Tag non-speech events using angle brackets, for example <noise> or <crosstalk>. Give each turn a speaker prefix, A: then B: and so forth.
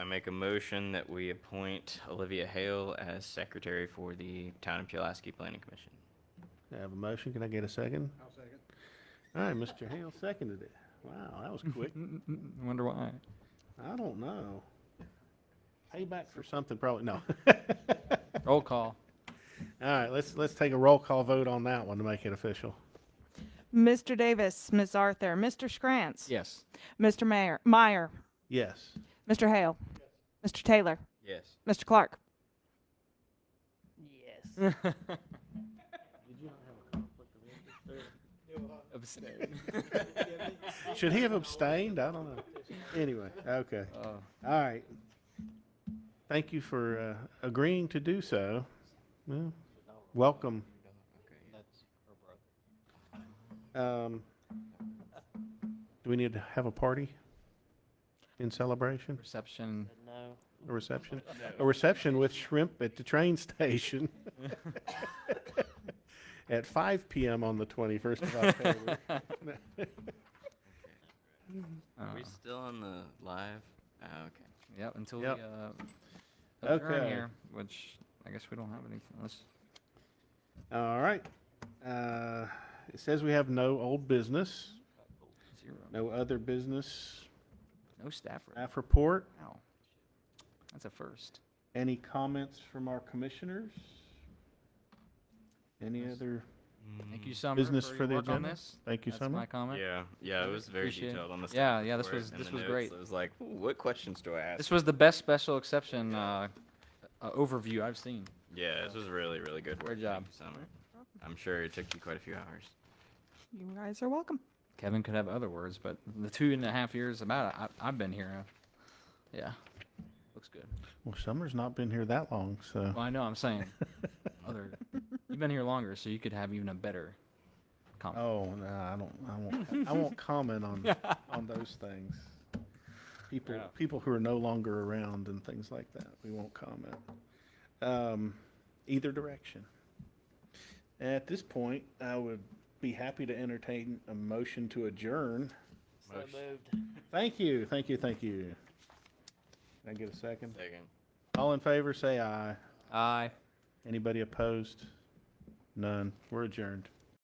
A: make a motion that we appoint Olivia Hale as secretary for the Town of Pulaski Planning Commission.
B: I have a motion. Can I get a second?
C: I'll second.
B: All right, Mr. Hale seconded it. Wow, that was
C: <laughs>
B: quick.
D: I wonder why.
B: I don't know. Payback for something, probably, no. <laughs>
A: <laughs>
D: Roll call.
B: All right, let's, let's take a roll call vote on that one to make it official.
E: Mr. Davis, Ms. Arthur, Mr. Scrantz.
D: Yes.
E: Mr. Mayor, Meyer,
B: Yes.
E: Mr. Hale, Mr. Taylor,
A: Yes.
E: Mr. Clark.
D: Did you Abstain.
B: Should he have abstained? I don't know. Anyway, okay.
D: Oh.
B: All right. Thank you for uh, agreeing to do so. Well, welcome. Um, do we need to have a party in celebration?
D: Reception.
B: A reception? A reception with shrimp at the train station <laughs> at 5 p.m. on the 21st of October.
A: Are we
D: Uh,
A: still on the live? Oh, okay.
D: Yep, until we,
B: Yep.
D: uh, adjourn
B: Okay.
D: here, which I guess we don't have anything unless,
B: All right. Uh, it says we have no old business,
D: zero,
B: no other business.
D: no staff, rep.
B: Staff report.
D: wow. That's a first.
B: Any comments from our commissioners? Any other?
A: Mm-hmm.
D: Thank you, Summer,
B: Business
D: for
B: for
D: your
B: the
D: work on
B: agenda?
D: this.
B: Thank you,
D: That's my
B: Summer.
D: comment.
A: Yeah, yeah, it was very
D: Appreciate it.
A: detailed on the.
D: Yeah,
A: staff
D: yeah, this
A: report
D: was-
A: and
D: this
A: the
D: was
A: notes.
D: great.
A: It was like, "Ooh, what questions do I ask?
D: This was the best special exception uh, uh, overview I've seen.
A: Yeah, this was really, really good work.
D: Great job.
A: Thank you, Summer. I'm sure it took you quite a few hours.
E: You guys are welcome.
D: Kevin could have other words, but the two and a half years about it, I, I've been here. uh, Yeah, looks good.
B: Well, Summer's not been here that long, so.
D: Well, I know I'm saying other. You've been here longer, so you could have even a better comment.
B: Oh, no, I don't, I won't, I won't comment on, on those things. People,
D: Yeah.
B: people who are no longer around and things like that, we won't comment. Um, either direction. At this point, I would be happy to entertain a motion to adjourn.
A: So moved.
B: Thank you, thank you, thank you. Can I get a second?
A: Second.
B: All in favor, say aye.
D: Aye.
B: Anybody opposed? None. We're adjourned.